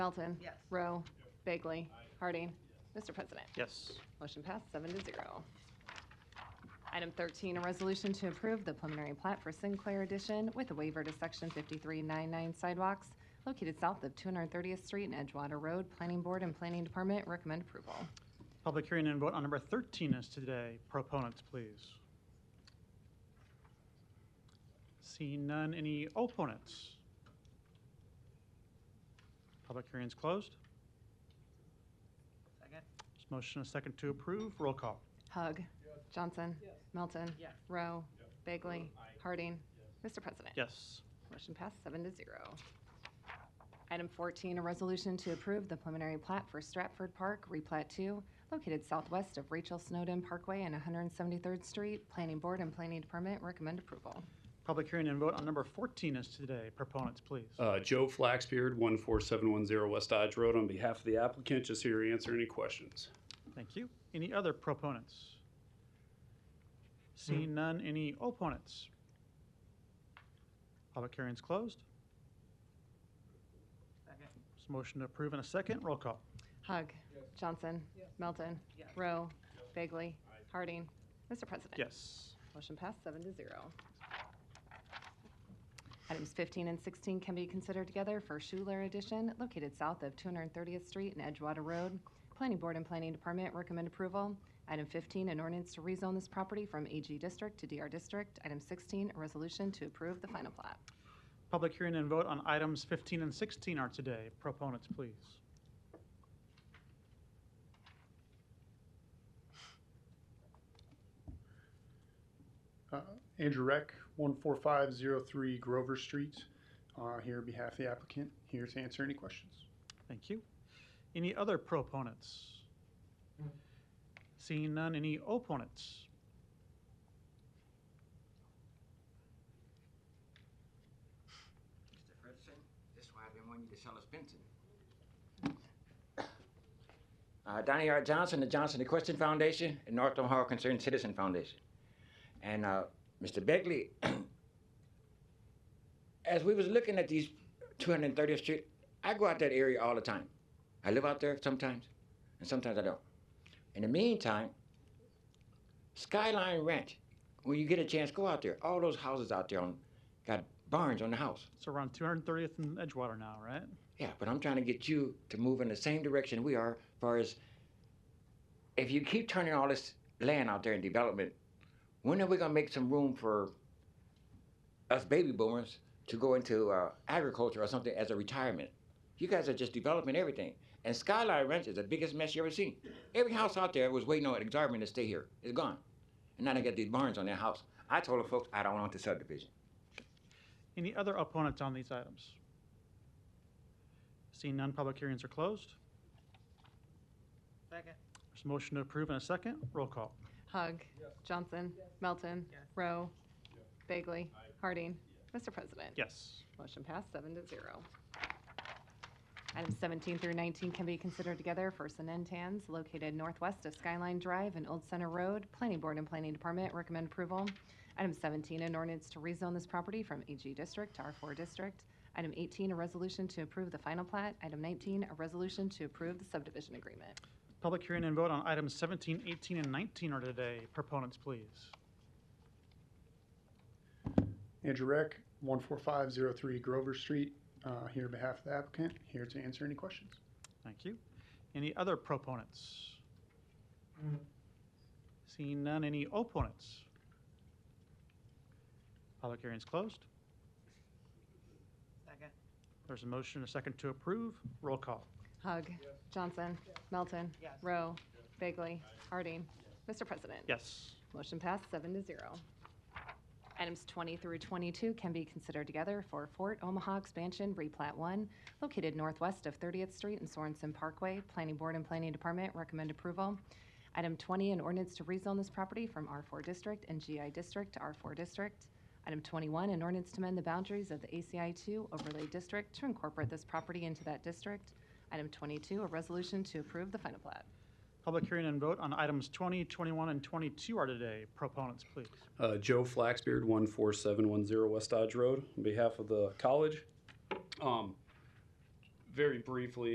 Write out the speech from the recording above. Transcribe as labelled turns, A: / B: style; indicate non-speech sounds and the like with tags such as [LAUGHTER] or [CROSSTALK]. A: Melton.
B: Yes.
A: Rowe. Bagley. Harding. Mr. President.
C: Yes.
A: Motion passed, seven to zero. Item 13, a resolution to approve the preliminary plat for Sinclair Edition with a waiver to Section 5399 sidewalks located south of 230th Street and Edgewater Road. Planning Board and Planning Department recommend approval.
C: Public hearing and vote on number 13 is today. Proponents, please. Seeing none, any opponents? Public hearing is closed.
B: Second?
C: There's motion and a second to approve. Roll call.
A: Hug. Johnson. Melton.
B: Yes.
A: Rowe. Bagley. Harding. Mr. President.
C: Yes.
A: Motion passed seven to zero. Item 14, a resolution to approve the preliminary plat for Stratford Park, replat 2, located southwest of Rachel Snowden Parkway and 173rd Street. Planning Board and Planning Department recommend approval.
C: Public hearing and vote on number 14 is today. Proponents, please.
D: Uh, Joe Flaxbeard, 14710 West Dodge Road, on behalf of the applicant, just here to answer any questions.
C: Thank you. Any other proponents? Seeing none, any opponents? Public hearing is closed.
B: Second?
C: There's a motion to approve in a second. Roll call.
A: Hug. Johnson. Melton.
B: Yes.
A: Rowe. Bagley. Harding. Mr. President.
C: Yes.
A: Motion passed seven to zero. Items 15 and 16 can be considered together for Schuler Edition located south of 230th Street and Edgewater Road. Planning Board and Planning Department recommend approval. Item 15, an ordinance to rezone this property from AG District to DR District. Item 16, a resolution to approve the final plat.
C: Public hearing and vote on items 15 and 16 are today. Proponents, please.
E: Uh, Andrew Reck, 14503 Grover Street, uh, here on behalf of the applicant, here to answer any questions.
C: Thank you. Any other proponents? Seeing none, any opponents?
F: Mr. Frederickson, this is why I've been wanting you to sell us Benson. Uh, Donnie R. Johnson, the Johnson Equestrian Foundation, and North Omaha Concerned Citizen Foundation. And, uh, Mr. Begley, [CLEARS THROAT] as we was looking at these 230th Street, I go out that area all the time. I live out there sometimes, and sometimes I don't. In the meantime, Skyline Ranch, when you get a chance, go out there. All those houses out there on, got barns on the house.
C: It's around 230th and Edgewater now, right?
F: Yeah, but I'm trying to get you to move in the same direction we are, far as if you keep turning all this land out there in development, when are we gonna make some room for us baby boomers to go into uh, agriculture or something as a retirement? You guys are just developing everything. And Skyline Ranch is the biggest mess you ever seen. Every house out there was waiting on an exorbitant to stay here. It's gone. And now they got these barns on their house. I told the folks I don't want the subdivision.
C: Any other opponents on these items? Seeing none, public hearings are closed.
B: Second?
C: There's a motion to approve in a second. Roll call.
A: Hug. Johnson. Melton.
B: Yes.
A: Rowe. Bagley. Harding. Mr. President.
C: Yes.
A: Motion passed, seven to zero. Items 17 through 19 can be considered together for Sanentans located northwest of Skyline Drive and Old Center Road. Planning Board and Planning Department recommend approval. Item 17, an ordinance to rezone this property from AG District to R4 District. Item 18, a resolution to approve the final plat. Item 19, a resolution to approve the subdivision agreement.
C: Public hearing and vote on items 17, 18, and 19 are today. Proponents, please.
E: Andrew Reck, 14503 Grover Street, uh, here on behalf of the applicant, here to answer any questions.
C: Thank you. Any other proponents? Seeing none, any opponents? Public hearing is closed.
B: Second?
C: There's a motion and a second to approve. Roll call.
A: Hug. Johnson. Melton.
B: Yes.
A: Rowe. Bagley. Harding. Mr. President.
C: Yes.
A: Motion passed, seven to zero. Items 20 through 22 can be considered together for Fort Omaha Expansion Replat 1, located northwest of 30th Street and Sorensen Parkway. Planning Board and Planning Department recommend approval. Item 20, an ordinance to rezone this property from R4 District and GI District to R4 District. Item 21, an ordinance to amend the boundaries of the ACI 2 overlay district to incorporate this property into that district. Item 22, a resolution to approve the final plat.
C: Public hearing and vote on items 20, 21, and 22 are today. Proponents, please.
D: Uh, Joe Flaxbeard, 14710 West Dodge Road, on behalf of the college. Um, Very briefly,